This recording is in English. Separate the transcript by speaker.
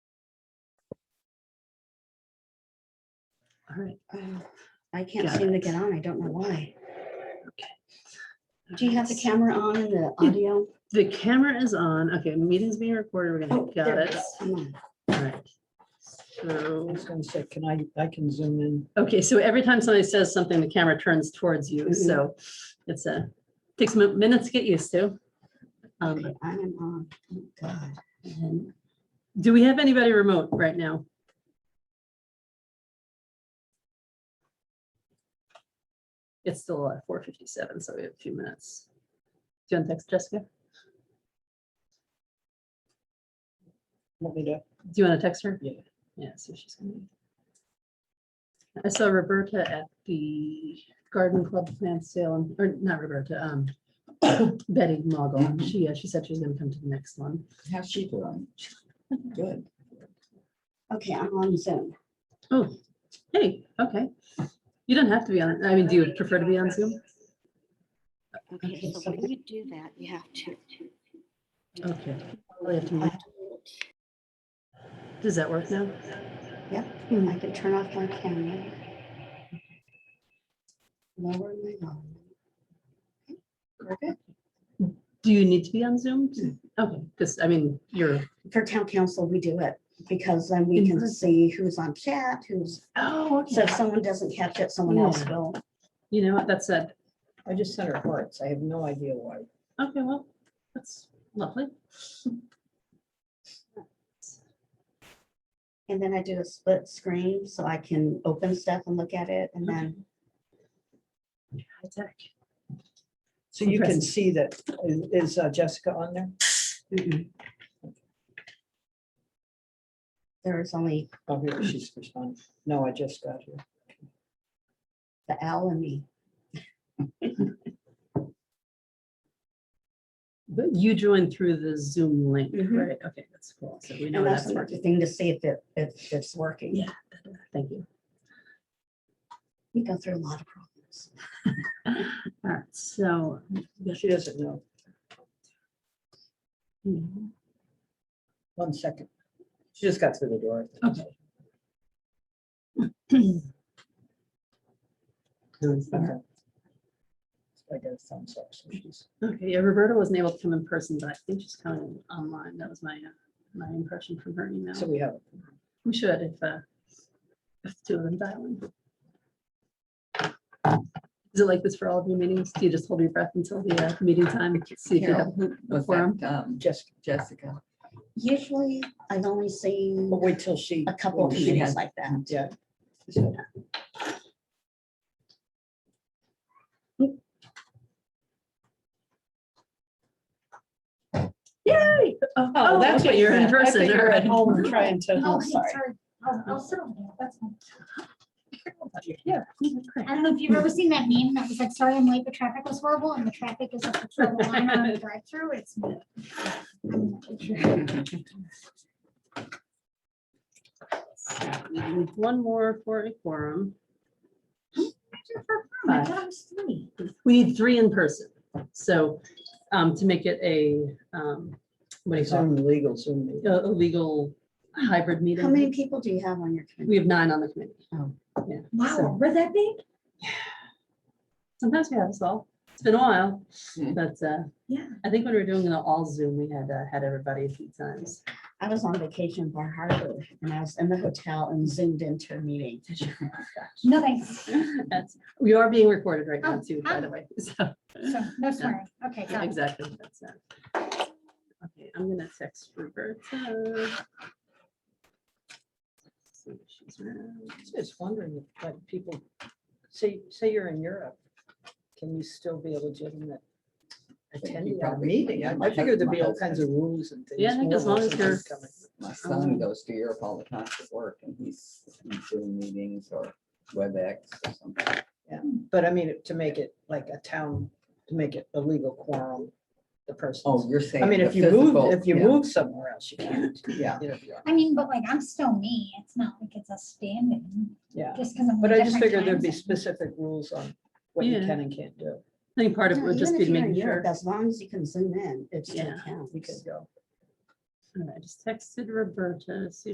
Speaker 1: All right.
Speaker 2: Um, I can't
Speaker 1: Got
Speaker 2: seem to
Speaker 1: it.
Speaker 2: get on. I don't know why. Do you have the camera on and the
Speaker 1: Yeah.
Speaker 2: audio?
Speaker 1: The camera is on. Okay, meeting's being recorded. We're gonna,
Speaker 2: Oh,
Speaker 1: got
Speaker 2: there
Speaker 1: it.
Speaker 2: is. I'm on.
Speaker 1: All right.
Speaker 3: I
Speaker 1: So,
Speaker 3: was gonna say, can I, I can zoom in.
Speaker 1: okay, so every time somebody says something, the camera turns towards you.
Speaker 2: Mhm.
Speaker 1: So it's a, takes mi- minutes to get used to. Um,
Speaker 2: Okay, I am on. Oh, God.
Speaker 1: And Do we have anybody remote right now? It's still at four fifty-seven, so we have a few minutes. Do you want to text Jessica?
Speaker 3: Want me to?
Speaker 1: Do you want to text her?
Speaker 3: Yeah.
Speaker 1: Yeah, so she's gonna. be- I saw Roberta at the garden club plant sale, and- or not Roberta, um, Betty Mogul. and She, uh, she said she was gonna come to the next one.
Speaker 4: How's she doing? Good.
Speaker 2: Okay, I'm on Zoom.
Speaker 1: Oh, hey, okay. You don't have to be on, I mean, do you prefer to be on Zoom?
Speaker 2: Okay, so when you do that, you have to.
Speaker 1: Okay. I'll Oh, have to mute. Does that work now?
Speaker 2: I can turn off my camera. Lower my volume. We're good.
Speaker 1: Do you need to be on Zoom? to- Okay, because I mean, you're,
Speaker 2: For town council, we do it because then we
Speaker 1: In
Speaker 2: can
Speaker 1: person.
Speaker 2: see who's on chat, who's,
Speaker 1: oh,
Speaker 2: so
Speaker 1: okay.
Speaker 2: if someone doesn't catch it, someone else will.
Speaker 1: You know, what? that's it.
Speaker 3: I just sent her hearts. I have no idea why.
Speaker 1: Okay, well, that's lovely.
Speaker 2: And then I do a split screen so I can open stuff and look at it and then,
Speaker 1: High tech.
Speaker 3: So you can
Speaker 1: Impressive.
Speaker 3: see that, is uh, Jessica on there?
Speaker 2: mm-mm. There is only
Speaker 3: Oh, here, she's responding. No, I just got here.
Speaker 2: the L and me.
Speaker 1: But you joined through the Zoom link,
Speaker 2: Mhm.
Speaker 1: right? Okay, that's cool. So we know
Speaker 2: And that's
Speaker 1: Mm-hmm. that's
Speaker 2: the
Speaker 1: working.
Speaker 2: thing to see if it, if it's working.
Speaker 1: Yeah. Thank you.
Speaker 2: We go through a lot of problems.
Speaker 1: All right, so.
Speaker 3: She doesn't know.
Speaker 1: Mhm.
Speaker 3: One second. She just got through the door.
Speaker 1: Okay.
Speaker 3: Okay. I got a thumbs up. so she's-
Speaker 1: Okay, yeah, Roberta wasn't able to come in person, but I think she's coming online. That was my, uh, my impression from her email.
Speaker 3: So we have.
Speaker 1: We should if, uh, if two of them dial in. Is it like this for all of your meetings? Do you just hold your breath until the uh, meeting time? See if you have
Speaker 4: Carol, who was
Speaker 1: forum.
Speaker 4: that? um,
Speaker 3: Jessica,
Speaker 4: Jessica.
Speaker 2: Usually I've only seen
Speaker 3: but wait till she.
Speaker 2: a couple of
Speaker 4: she
Speaker 2: meetings
Speaker 4: has-
Speaker 2: like that.
Speaker 3: Yeah.
Speaker 1: Yay! Oh, that's what you're in person. all right.
Speaker 3: and trying to.
Speaker 5: Oh, hey, sorry. I'll I'll sit over there. That's fine.
Speaker 1: Yeah. great.
Speaker 5: I don't know if you've ever seen that meme that was like, sorry, I'm late, the traffic was horrible and the traffic is up the trouble line on the drive-through. It's. me. I'm not sure.
Speaker 1: So we need One more for a quorum. Oh
Speaker 5: I thought it was three.
Speaker 1: We need three in person. So um, to make it a, um, what do you call
Speaker 3: Zoom legal, Zoom
Speaker 1: it?
Speaker 3: legal.
Speaker 1: A a legal hybrid
Speaker 2: How many
Speaker 1: meeting.
Speaker 2: people do you have on your
Speaker 1: We
Speaker 2: committee?
Speaker 1: have nine on the committee.
Speaker 5: Wow, we're that big?
Speaker 1: Sometimes we have us all. It's been a while,
Speaker 4: Mm.
Speaker 1: but uh,
Speaker 5: Yeah.
Speaker 1: I think when we were doing it all Zoom, we had uh, had everybody a few times.
Speaker 2: I was on vacation in Bar Harbor and I was in the hotel and zoomed into a meeting.
Speaker 5: No thanks.
Speaker 1: That's- We are being recorded right now
Speaker 5: Oh,
Speaker 1: too, by the way. So,
Speaker 5: So, no swearing. Okay, got it.
Speaker 1: exactly. that's it. Okay, I'm gonna text Roberta. See if she's around.
Speaker 3: Just wondering, if, like, people, say, say you're in Europe, can you still be a legitimate attendee at a
Speaker 4: probably
Speaker 3: meeting? I
Speaker 4: can.
Speaker 3: I figured there'd be all
Speaker 4: My
Speaker 3: kinds of rules and things.
Speaker 1: Yeah, I think
Speaker 3: more
Speaker 1: as long as
Speaker 3: rules than
Speaker 1: you're-
Speaker 3: just coming.
Speaker 4: My son goes to Europe all the time for work and he's in Zoom meetings or WebEx or something.
Speaker 3: But I mean, to make it like a town, to make it a legal quorum, the person.
Speaker 4: Oh, you're saying.
Speaker 3: I mean,
Speaker 4: the
Speaker 3: if you move,
Speaker 4: physical,
Speaker 3: if you
Speaker 4: yeah,
Speaker 3: move somewhere else, you can't.
Speaker 4: Yeah.
Speaker 3: you know, if you're-
Speaker 5: I mean, but like, I'm still me. It's not like it's a standing,
Speaker 3: Yeah,
Speaker 5: just because I'm. in
Speaker 3: but I just
Speaker 5: different
Speaker 3: figured there'd
Speaker 5: time
Speaker 3: be
Speaker 5: zone.
Speaker 3: specific rules on what you
Speaker 1: Yeah.
Speaker 3: can and can't do.
Speaker 1: I think part of it
Speaker 2: No,
Speaker 1: would just be
Speaker 2: even
Speaker 1: to
Speaker 2: if you're in
Speaker 1: make sure.
Speaker 2: Europe, As long as you can zoom in, it's still
Speaker 1: Yeah.
Speaker 2: counts.
Speaker 3: We could go.
Speaker 1: All right, I just texted Roberta, see if